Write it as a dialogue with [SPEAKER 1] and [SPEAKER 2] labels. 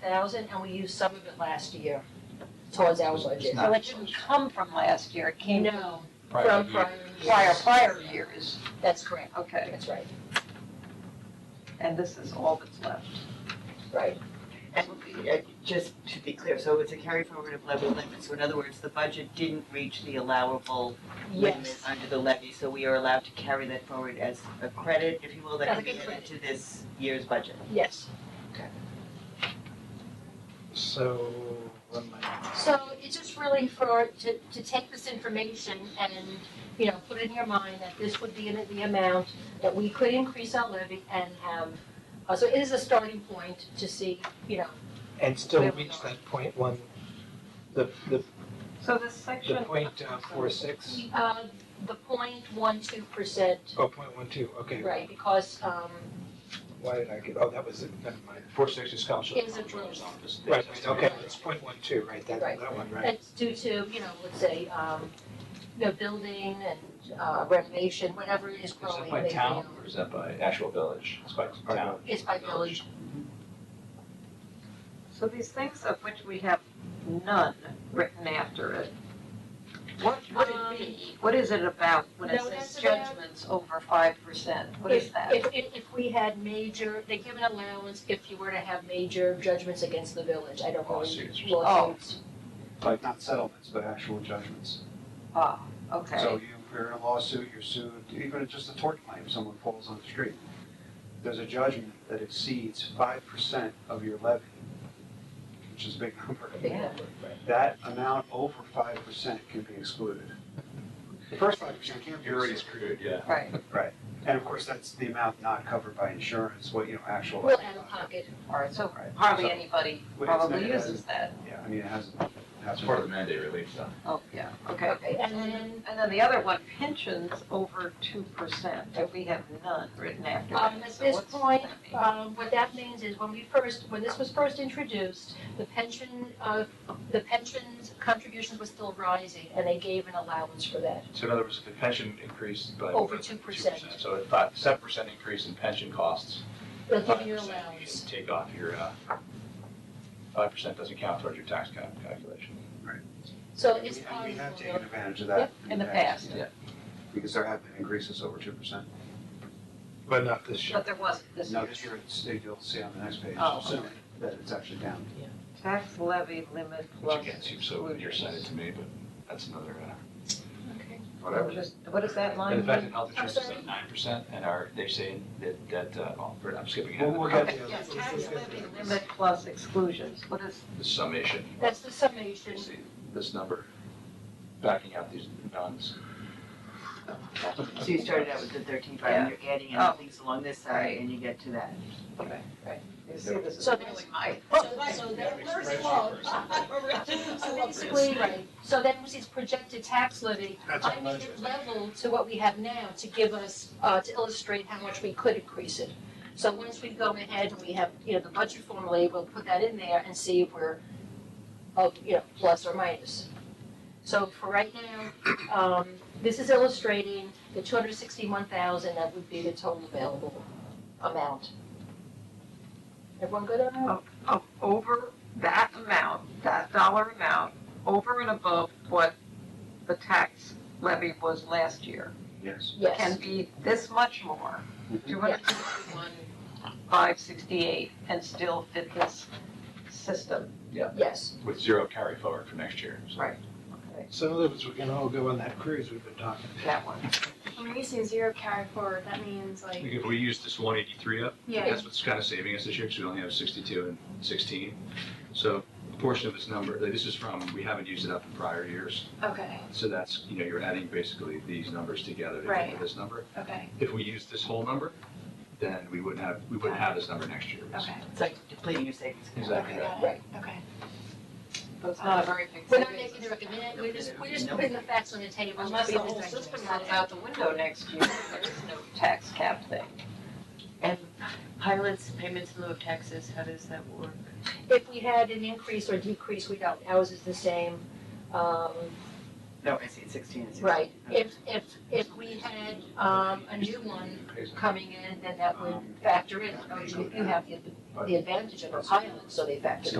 [SPEAKER 1] thousand, and we used some of it last year towards our budget.
[SPEAKER 2] Well, it didn't come from last year, it came from
[SPEAKER 1] No,
[SPEAKER 3] Prior year.
[SPEAKER 1] from prior years.
[SPEAKER 2] prior, prior years.
[SPEAKER 1] That's correct,
[SPEAKER 2] Okay,
[SPEAKER 1] that's right,
[SPEAKER 2] and this is all that's left.
[SPEAKER 1] right.
[SPEAKER 4] Uh, Just to be clear, so it's a carry forward of levy limit, so in other words, the budget didn't reach the allowable limit
[SPEAKER 1] Yes,
[SPEAKER 4] under the levy, so we are allowed to carry that forward as a credit, if you will, that
[SPEAKER 1] As
[SPEAKER 4] can
[SPEAKER 1] a
[SPEAKER 4] be
[SPEAKER 1] good
[SPEAKER 4] added to this year's budget.
[SPEAKER 1] yes.
[SPEAKER 3] So, what am I-
[SPEAKER 1] So it's just really for, to, to take this information and, you know, put it in your mind that this would be the amount that we could increase our levy and have, uh, so it is a starting point to see, you know,
[SPEAKER 3] and still
[SPEAKER 1] Where we
[SPEAKER 3] reach
[SPEAKER 1] are.
[SPEAKER 3] that point one, the, the,
[SPEAKER 2] So this
[SPEAKER 3] the
[SPEAKER 2] section.
[SPEAKER 3] point uh, four six,
[SPEAKER 1] uh, the point one two percent,
[SPEAKER 3] oh, point one two, okay.
[SPEAKER 1] right, because, um,
[SPEAKER 3] Why did I get, oh, that was it, never mind.
[SPEAKER 5] Four sixty comes from the
[SPEAKER 1] Is it
[SPEAKER 5] comptroller's office. They
[SPEAKER 3] Right,
[SPEAKER 5] just-
[SPEAKER 3] right, okay, it's point one two, right, that,
[SPEAKER 1] Right.
[SPEAKER 3] that one, right.
[SPEAKER 1] it's due to, you know, let's say, um, you know, building and uh, renovation, whatever is
[SPEAKER 5] Is that
[SPEAKER 1] growing.
[SPEAKER 5] by
[SPEAKER 1] they
[SPEAKER 5] town
[SPEAKER 1] feel.
[SPEAKER 5] or is that by actual village? It's by town.
[SPEAKER 1] It's by village,
[SPEAKER 2] So these things of which we have none written after it, what would it be? What is it Um, about when it
[SPEAKER 1] No,
[SPEAKER 2] says
[SPEAKER 1] that's about-
[SPEAKER 2] judgments over five percent? What is
[SPEAKER 1] If-
[SPEAKER 2] that?
[SPEAKER 1] If, if, if we had major, they give an allowance if you were to have major judgments against the village, I don't
[SPEAKER 5] Oh, I
[SPEAKER 1] believe
[SPEAKER 5] see.
[SPEAKER 1] lawsuits.
[SPEAKER 2] Oh,
[SPEAKER 6] like not settlements, but actual judgments.
[SPEAKER 2] Ah, okay.
[SPEAKER 6] So you, you're in a lawsuit, you're sued, even just a tort claim, someone falls on the street. There's a judgment that exceeds five percent of your levy, which is a big number. That amount over five percent can be excluded. The first five percent can't be excluded.
[SPEAKER 5] screwed, yeah.
[SPEAKER 2] Right,
[SPEAKER 6] And of course, that's the amount not covered by insurance, what, you know, actual.
[SPEAKER 1] Well, out of pocket,
[SPEAKER 2] all right, so
[SPEAKER 6] Right.
[SPEAKER 2] hardly
[SPEAKER 6] So-
[SPEAKER 2] anybody
[SPEAKER 6] Well, it's
[SPEAKER 2] probably
[SPEAKER 6] not-
[SPEAKER 2] uses that.
[SPEAKER 6] Yeah, I mean, it hasn't,
[SPEAKER 5] It's
[SPEAKER 6] hasn't.
[SPEAKER 5] part of the mandate relief though.
[SPEAKER 2] Oh, yeah, okay.
[SPEAKER 1] okay, and then,
[SPEAKER 2] And then the other one, pensions over two percent, but we have none written after that.
[SPEAKER 1] um, at
[SPEAKER 2] So
[SPEAKER 1] this
[SPEAKER 2] what's
[SPEAKER 1] point,
[SPEAKER 2] that mean?
[SPEAKER 1] um, what that means is when we first, when this was first introduced, the pension, uh, the pensions contribution was still rising, and they gave an allowance for that.
[SPEAKER 5] So in other words, if the pension increased by.
[SPEAKER 1] Over 2%.
[SPEAKER 5] So a five, seven percent increase in pension costs.
[SPEAKER 1] They'll give you an
[SPEAKER 5] 5%,
[SPEAKER 1] allowance,
[SPEAKER 5] can Take off your, uh, five percent doesn't count towards your tax cal- calculation.
[SPEAKER 1] so
[SPEAKER 6] And
[SPEAKER 1] it's
[SPEAKER 6] we-
[SPEAKER 1] part
[SPEAKER 6] And
[SPEAKER 1] of
[SPEAKER 6] we
[SPEAKER 1] the
[SPEAKER 6] have taken
[SPEAKER 1] formula.
[SPEAKER 6] advantage of that.
[SPEAKER 2] in the past.
[SPEAKER 6] yeah. Because there have been increases over two percent.
[SPEAKER 3] But not this year.
[SPEAKER 2] But there wasn't this
[SPEAKER 6] No,
[SPEAKER 2] year.
[SPEAKER 6] this year, it's, you'll see on the next page,
[SPEAKER 2] Oh,
[SPEAKER 6] so
[SPEAKER 2] okay.
[SPEAKER 6] that it's actually down.
[SPEAKER 2] Tax levy limit
[SPEAKER 5] Which
[SPEAKER 2] plus
[SPEAKER 5] again seems so nearsighted
[SPEAKER 2] exclusions.
[SPEAKER 5] to me, but that's another, uh,
[SPEAKER 1] Okay.
[SPEAKER 5] whatever.
[SPEAKER 2] What is- What is that line?
[SPEAKER 5] And the fact
[SPEAKER 2] mean?
[SPEAKER 5] that health insurance is like nine percent and our, they're saying that, that, uh, oh, I'm skipping ahead.
[SPEAKER 6] We'll- we'll
[SPEAKER 2] Okay,
[SPEAKER 6] get the other-
[SPEAKER 2] yeah,
[SPEAKER 6] let's
[SPEAKER 2] tax
[SPEAKER 6] just get
[SPEAKER 2] levy
[SPEAKER 6] the other.
[SPEAKER 2] limit plus exclusions, what is,
[SPEAKER 5] The summation.
[SPEAKER 1] That's the summation,
[SPEAKER 5] You see this number, backing out these nuns.
[SPEAKER 4] So you started out with the thirteen five, and you're adding
[SPEAKER 2] Oh.
[SPEAKER 4] in things along this side, and you get to that.
[SPEAKER 2] you see, this is
[SPEAKER 1] So
[SPEAKER 2] really my.
[SPEAKER 1] so, so that first of all, So basically, right, so that was his projected tax levy.
[SPEAKER 3] That's
[SPEAKER 1] I made it level to what we have now to give us, uh, to illustrate how much we could increase it. So once we go ahead and we have, you know, the budget formula, we'll put that in there and see if we're, of, you know, plus or minus. So for right now, um, this is illustrating the two hundred sixty-one thousand, that would be the total available amount. Everyone good on that?
[SPEAKER 2] Of over that amount, that dollar amount, over and above what the tax levy was last year,
[SPEAKER 6] Yes.
[SPEAKER 2] can
[SPEAKER 1] Yes,
[SPEAKER 2] be this much more. two hundred sixty-one, five sixty-eight, and still fit this system.
[SPEAKER 1] yes.
[SPEAKER 5] With zero carry forward for next year, so.
[SPEAKER 2] Right. Okay,
[SPEAKER 3] So in other words, we can all go on that cruise we've been talking
[SPEAKER 2] That one.
[SPEAKER 7] When we say zero carry forward, that means like,
[SPEAKER 5] If we use this one eighty-three up,
[SPEAKER 7] Yeah.
[SPEAKER 5] that's what's kind of saving us this year, because we only have sixty-two and sixteen. So a portion of this number, like, this is from, we haven't used it up in prior years,
[SPEAKER 7] okay,
[SPEAKER 5] so that's, you know, you're adding basically these numbers together to get to
[SPEAKER 7] Right.
[SPEAKER 5] this number.
[SPEAKER 7] okay,
[SPEAKER 5] If we used this whole number, then we wouldn't have, we wouldn't have this number next year.
[SPEAKER 7] okay,
[SPEAKER 4] It's like depleting your savings. account.
[SPEAKER 5] Exactly right.
[SPEAKER 7] got it, okay.
[SPEAKER 2] But it's not a very big
[SPEAKER 1] We're not
[SPEAKER 2] savings.
[SPEAKER 1] making the recommendation, we're just, we're just putting the facts on the table.
[SPEAKER 2] Unless the whole system runs out the window next year, there is no tax cap thing.
[SPEAKER 4] And pilots, payments in lieu of taxes, how does that work?
[SPEAKER 1] If we had an increase or decrease, we don't, ours is the same. Um,
[SPEAKER 4] No, I see, sixteen is sixteen.
[SPEAKER 1] right, if, if, if we had, um, a new one coming in, then that would factor in. Oh, you, you have the, the advantage of a pilot, so they factored it